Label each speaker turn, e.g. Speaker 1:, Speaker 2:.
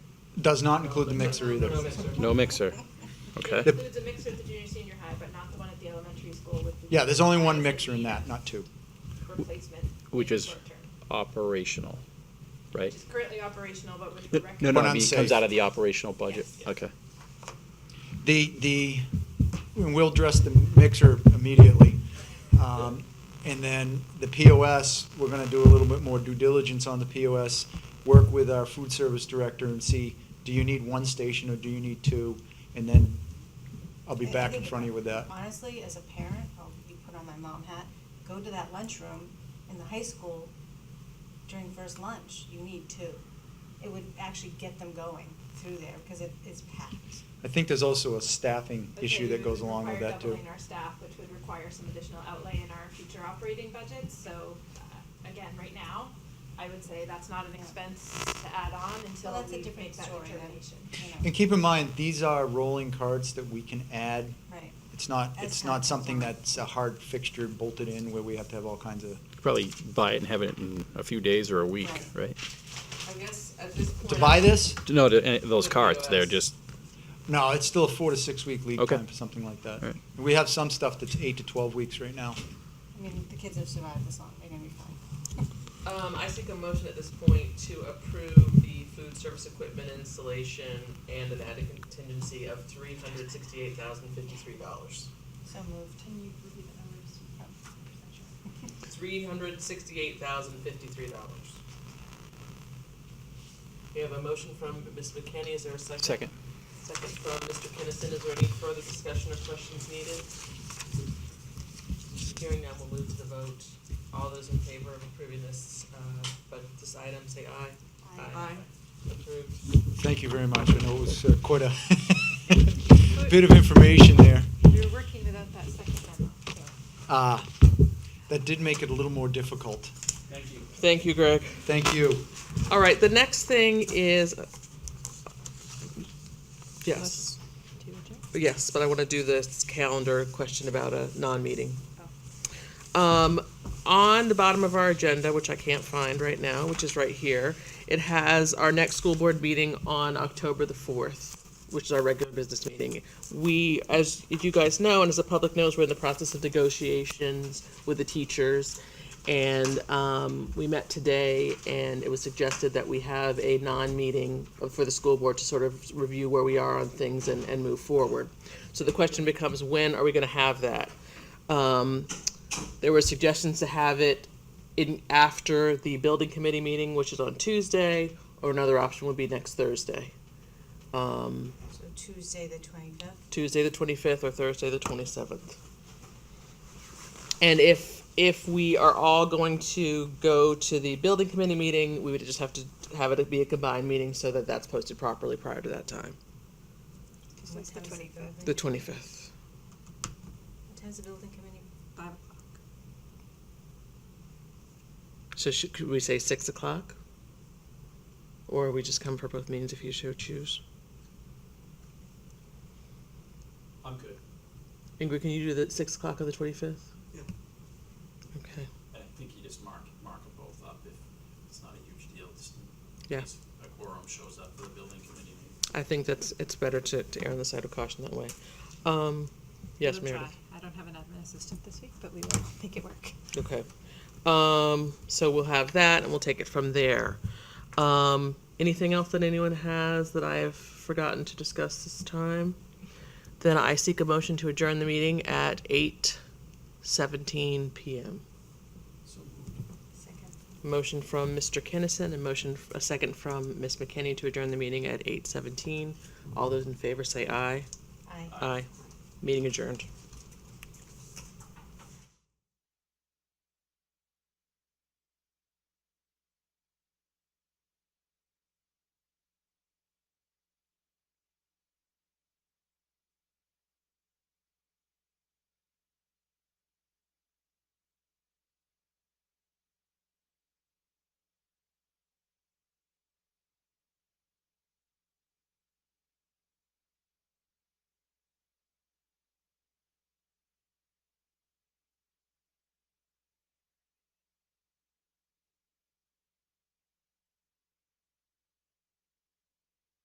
Speaker 1: Does not include the mixer either.
Speaker 2: No mixer. Okay.
Speaker 3: It includes a mixer at the junior senior high, but not the one at the elementary school with the.
Speaker 1: Yeah, there's only one mixer in that, not two.
Speaker 3: Replacement.
Speaker 2: Which is
Speaker 3: short-term,
Speaker 2: operational, right?
Speaker 3: Which is currently operational, but which we
Speaker 2: No,
Speaker 3: recommend.
Speaker 2: no,
Speaker 1: But
Speaker 2: no, I mean, it
Speaker 1: unsafe.
Speaker 2: comes out of the operational budget.
Speaker 3: Yes.
Speaker 2: Okay.
Speaker 1: The, the, and we'll address the mixer immediately. Um, And then the POS, we're gonna do a little bit more due diligence on the POS, work with our food service director and see, do you need one station or do you need two? And then I'll be
Speaker 4: I- I
Speaker 1: back in
Speaker 4: think
Speaker 1: front of you with that.
Speaker 4: Honestly, as a parent, I'll be put on my mom hat, go to that lunchroom in the high school during first lunch, you need two. It would actually get them going through there, because it, it's packed.
Speaker 1: I think there's also a staffing
Speaker 3: But
Speaker 1: issue
Speaker 3: then
Speaker 1: that
Speaker 3: we
Speaker 1: goes
Speaker 3: would
Speaker 1: along with
Speaker 3: require
Speaker 1: that too.
Speaker 3: Doubling our staff, which would require some additional outlay in our future operating budgets, so, uh, again, right now, I would say that's not an
Speaker 4: Yeah.
Speaker 3: expense to add on until
Speaker 4: that's a
Speaker 3: we
Speaker 4: different
Speaker 3: make that
Speaker 4: story then.
Speaker 3: determination.
Speaker 4: Yeah.
Speaker 1: And keep in mind, these are rolling carts that we can add.
Speaker 4: Right.
Speaker 1: It's not,
Speaker 4: As
Speaker 1: it's
Speaker 4: time
Speaker 1: not
Speaker 4: goes
Speaker 1: something
Speaker 4: on.
Speaker 1: that's a hard fixture bolted in where we have to have all kinds of,
Speaker 2: Probably buy it and have it in a few days or a week, right?
Speaker 4: Right.
Speaker 5: I guess at this point.
Speaker 1: to buy this?
Speaker 2: No, to- eh, those
Speaker 5: The
Speaker 2: carts, they're
Speaker 5: POS.
Speaker 2: just,
Speaker 1: No, it's still a four to six week lead
Speaker 2: Okay.
Speaker 1: time for something like that.
Speaker 2: All right.
Speaker 1: And We have some stuff that's eight to twelve weeks right now.
Speaker 4: I mean, the kids have survived this long, they're gonna be fine.
Speaker 5: Um, I seek a motion at this point to approve the food service equipment installation and an added contingency of three hundred sixty-eight thousand fifty-three dollars.
Speaker 4: So moved.
Speaker 3: Can you review the numbers?
Speaker 5: Three hundred sixty-eight thousand fifty-three dollars. We have a motion from Ms. McKenney, is there a second?
Speaker 2: second.
Speaker 5: Second from Mr. Kinnison, is there any further discussion or questions needed? Hearing none, we'll move to the vote. All those in favor of approving this, uh, but this item, say aye.
Speaker 4: Aye.
Speaker 5: Approved.
Speaker 1: Thank you very much. I know it was uh, quite a bit of information there.
Speaker 3: You're working without that second memo, so.
Speaker 1: Uh, That did make it a little more difficult.
Speaker 5: Thank you, Greg.
Speaker 1: Thank you.
Speaker 5: All right, the next thing is. Yes, yes, but I want to do this calendar question about a non-meeting. Um, on the bottom of our agenda, which I can't find right now, which is right here, it has our next school board meeting on October the fourth, which is our regular business meeting. We, as you guys know, and as the public knows, we're in the process of negotiations with the teachers. And, um, we met today and it was suggested that we have a non-meeting for the school board to sort of review where we are on things and, and move forward. So the question becomes, when are we gonna have that? Um, there were suggestions to have it in after the building committee meeting, which is on Tuesday, or another option would be next Thursday. Um,
Speaker 4: So Tuesday, the twenty-fifth?
Speaker 5: Tuesday the twenty-fifth or Thursday the twenty-seventh. And if, if we are all going to go to the building committee meeting, we would just have to have it be a combined meeting so that that's posted properly prior to that time,
Speaker 3: It's the 25th.
Speaker 5: the twenty-fifth.
Speaker 4: What time's the building committee? Five o'clock.
Speaker 5: So should, could we say six o'clock? Or we just come for both meetings if you so choose?
Speaker 6: I'm good.
Speaker 5: Ingrid, can you do the six o'clock on the twenty fifth?
Speaker 6: Yeah.
Speaker 5: Okay.
Speaker 6: And I think you just mark, mark them both up if it's not a huge deal, just in
Speaker 5: Yeah.
Speaker 6: case a quorum shows up for the building committee meeting.
Speaker 5: I think that's it's better to, to err on the side of caution that way. Um, yes,
Speaker 7: We'll try.
Speaker 5: Meredith.
Speaker 7: I don't have an admin assistant this week, but we will make it work.
Speaker 5: Okay. Um, so we'll have that and we'll take it from there. Um, anything else that anyone has that I have forgotten to discuss this time? Then I seek a motion to adjourn the meeting at eight seventeen PM.
Speaker 6: So
Speaker 4: Second.
Speaker 5: Motion from Mr. Kinnison and motion, a second from Ms. McKinney to adjourn the meeting at eight seventeen. All those in favor say aye.
Speaker 4: Aye.
Speaker 5: Aye. Meeting adjourned.